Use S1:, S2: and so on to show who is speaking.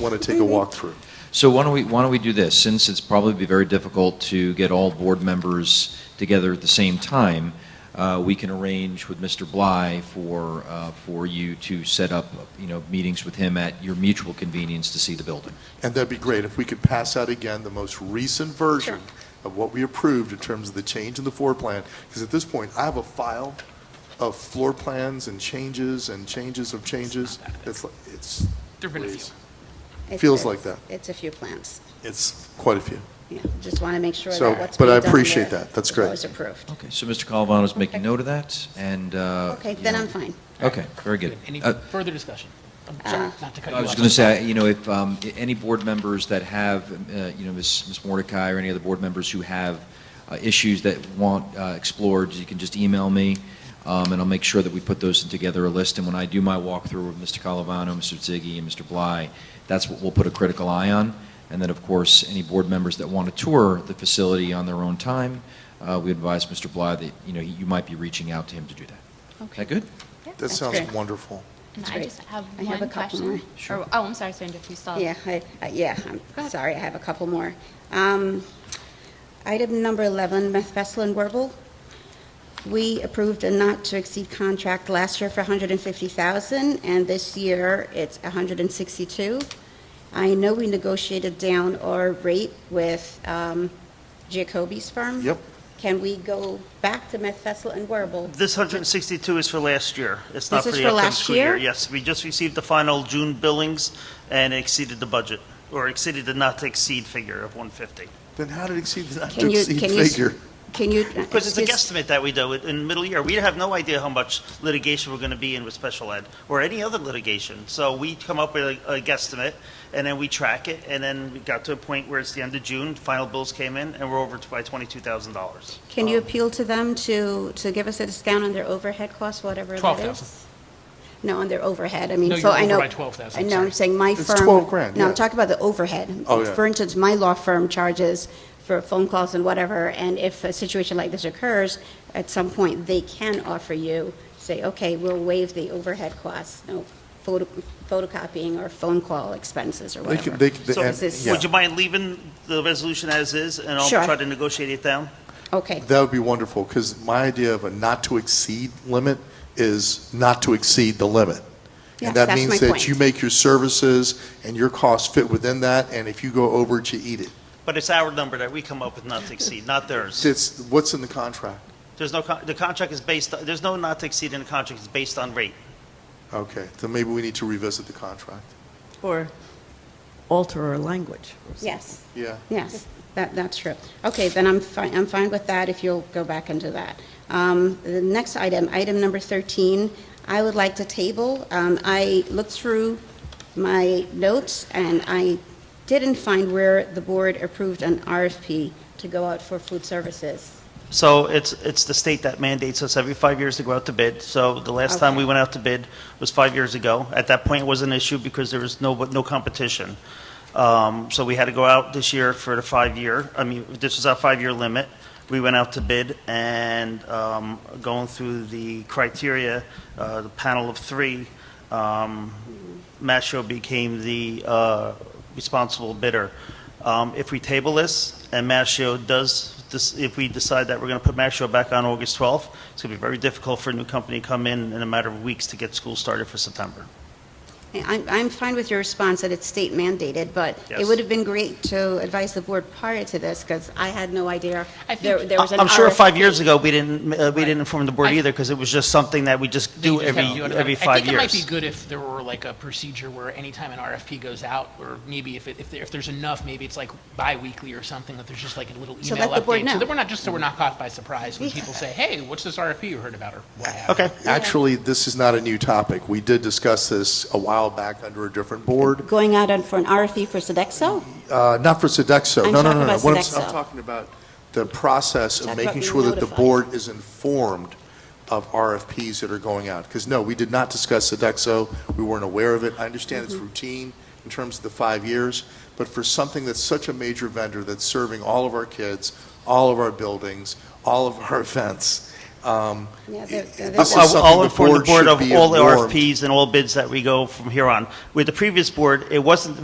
S1: want to take a walkthrough.
S2: So why don't we, why don't we do this? Since it's probably be very difficult to get all board members together at the same time, uh, we can arrange with Mr. Bly for, uh, for you to set up, you know, meetings with him at your mutual convenience to see the building.
S1: And that'd be great if we could pass out again the most recent version of what we approved in terms of the change in the floor plan, because at this point, I have a file of floor plans and changes and changes of changes. It's, like- it's,
S3: There've been a few.
S1: please.
S4: It's-
S1: Feels
S4: it's-
S1: like that.
S4: It's a few plants.
S1: it's quite a few.
S4: Yeah, just want to make sure
S1: So,
S4: that what's
S1: but
S4: being
S1: I
S4: done there.
S1: appreciate that. That's great.
S4: was approved.
S2: Okay, so Mr. Calavano's making
S4: Okay.
S2: note of that, and... uh,
S4: Okay,
S2: you
S4: then
S2: know-
S4: I'm fine.
S2: Okay, very good.
S3: Any
S2: Uh,
S3: further discussion? I'm sorry,
S4: Uh,
S3: not to cut you
S2: I
S3: off.
S2: was going to say, you know, if um, i- any board members that have, uh, you know, Ms. Ms. Mordecai or any other board members who have uh, issues that want uh, explored, you can just email me, um, and I'll make sure that we put those in together a list. And when I do my walkthrough with Mr. Calavano, Mr. Ziggy, and Mr. Bly, that's what we'll put a critical eye on. And then, of course, any board members that want to tour the facility on their own time, uh, we advise Mr. Bly that, you know, you might be reaching out to him to do that. Is that good?
S1: That
S4: That's
S1: sounds
S4: great.
S1: wonderful.
S5: And
S4: That's
S5: I
S4: great.
S5: just have
S4: I have
S5: one
S4: a couple
S5: question.
S4: more.
S5: Or- Oh, I'm sorry, Sandra, if you still have-
S6: Um,
S4: Yeah, I, I- yeah,
S5: Go
S4: I'm
S5: ahead.
S4: sorry, I have a couple more. Um, Item number 11, Methvestel and Werble. We approved a not-to-exceed contract last year for 150000 and this year it's 162 I know we negotiated down our rate with um, Jacoby's firm.
S1: Yep.
S4: Can we go back to Methvestel and Werble?
S6: This 162 is for last year. It's not
S4: This is
S6: for the
S4: for
S6: upcoming
S4: last
S6: school year.
S4: year?
S6: Yes, we just received the final June billings and it exceeded the budget, or exceeded the not-to-exceed figure of 150.
S1: Then how did it exceed the not to
S4: Can you-
S1: exceed
S4: can you s-
S1: figure?
S4: Can you? uh,
S6: Because it's a
S4: excuse-
S6: guesstimate that we do, it in middle year, we have no idea how much litigation we're going to be in with special ed, or any other litigation. So we come up with a a guesstimate, and then we track it, and then we got to a point where it's the end of June, final bills came in, and we're over t- by $22,000.
S4: Can you appeal to them to, to give us a discount on their overhead costs, whatever that is?
S3: 12,000.
S4: No, on their overhead, I mean,
S3: No,
S4: so
S3: you're
S4: I
S3: over
S4: know.
S3: by 12,000,
S4: I know,
S3: sorry.
S4: I'm saying my
S1: It's
S4: firm.
S1: 12 grand,
S4: No,
S1: yeah.
S4: I'm talking about the overhead.
S1: Oh, yeah.
S4: For instance, my law firm charges for phone calls and whatever, and if a situation like this occurs, at some point, they can offer you, say, okay, we'll waive the overhead costs, no photo- photocopying or phone call expenses or
S1: They can-
S4: whatever.
S1: they can-
S4: So
S1: and-
S4: is this-
S1: yeah.
S6: Would you mind leaving the resolution as is, and I'll
S4: Sure.
S6: try to negotiate it down?
S4: Okay,
S1: That would be wonderful, because my idea of a not to exceed limit is not to exceed the limit.
S4: Yes,
S1: And that
S4: that's my
S1: means that
S4: point.
S1: you make your services and your costs fit within that, and if you go over it, you eat it.
S6: But it's our number that we come up with not to exceed, not theirs.
S1: It's, what's in the contract?
S6: There's no, con- the contract is based, there's no not to exceed in the contract, it's based on rate.
S1: Okay, then maybe we need to revisit the contract.
S7: Or alter our language. or something.
S4: yes.
S1: Yeah.
S4: Yes, that, that's true. Okay, then I'm fine, I'm fine with that if you'll go back into that. Um, The next item, item number 13, I would like to table. Um, I looked through my notes, and I didn't find where the board approved an RFP to go out for food services.
S6: So it's, it's the state that mandates us every five years to go out to bid. So the last time we
S4: Okay.
S6: went out to bid was five years ago. At that point, it was an issue because there was no, no competition. Um, So we had to go out this year for the five-year, I mean, this was our five-year limit. We went out to bid and um, going through the criteria, uh, the panel of three, um, Mashrow became the uh, responsible bidder. Um, If we table this, and Mashio does, this- if we decide that we're going to put Mashio back on August 12th, it's going to be very difficult for a new company to come in in a matter of weeks to get school started for September.
S4: I- I'm, I'm fine with your response that it's state mandated, but it
S6: Yes.
S4: would have been great to advise the board prior to this, because I had no idea
S5: I think-
S4: there there was an RFP.
S6: I'm sure five years ago, we didn't, uh, we didn't inform the board
S3: I-
S6: either, because it was just something that we just
S3: That you
S6: do
S3: just
S6: every,
S3: have to do it
S6: every
S3: around-
S6: five
S3: I think it might be
S6: years.
S3: good if there were like a procedure where anytime an RFP goes out, or maybe if, it- if there- if there's enough, maybe it's like bi-weekly or something, that there's just like a little
S4: So
S3: email
S4: let the board
S3: update. So
S4: know.
S3: that we're not, just so we're not caught by surprise when people say, hey, what's this RFP you heard about, or what happened?
S6: Okay,
S1: Actually, this is not a new topic. We did discuss this a while back under a different board,
S4: Going out on- for an RFP for Sodexo?
S1: uh, not for Sodexo.
S4: I'm
S1: No, no,
S4: talking
S1: no, no.
S4: about
S1: What I'm-
S4: Sodexo.
S1: I'm talking about the process of
S4: Talk
S1: making
S4: about
S1: sure
S4: being
S1: that the
S4: notified.
S1: board is informed of RFPs that are going out. Because no, we did not discuss Sodexo. We weren't aware of it. I understand
S4: Mm-hmm.
S1: it's routine in terms of the five years, but for something that's such a major vendor that's serving all of our kids, all of our buildings, all of our events, um,
S4: Yeah,
S1: it-
S4: they're- they're-
S1: this is
S6: I'll I'll
S1: something the
S6: inform the
S1: board should
S6: board of
S1: be
S6: all the
S1: informed.
S6: RFPs and all bids that we go from here on. With the previous board, it wasn't,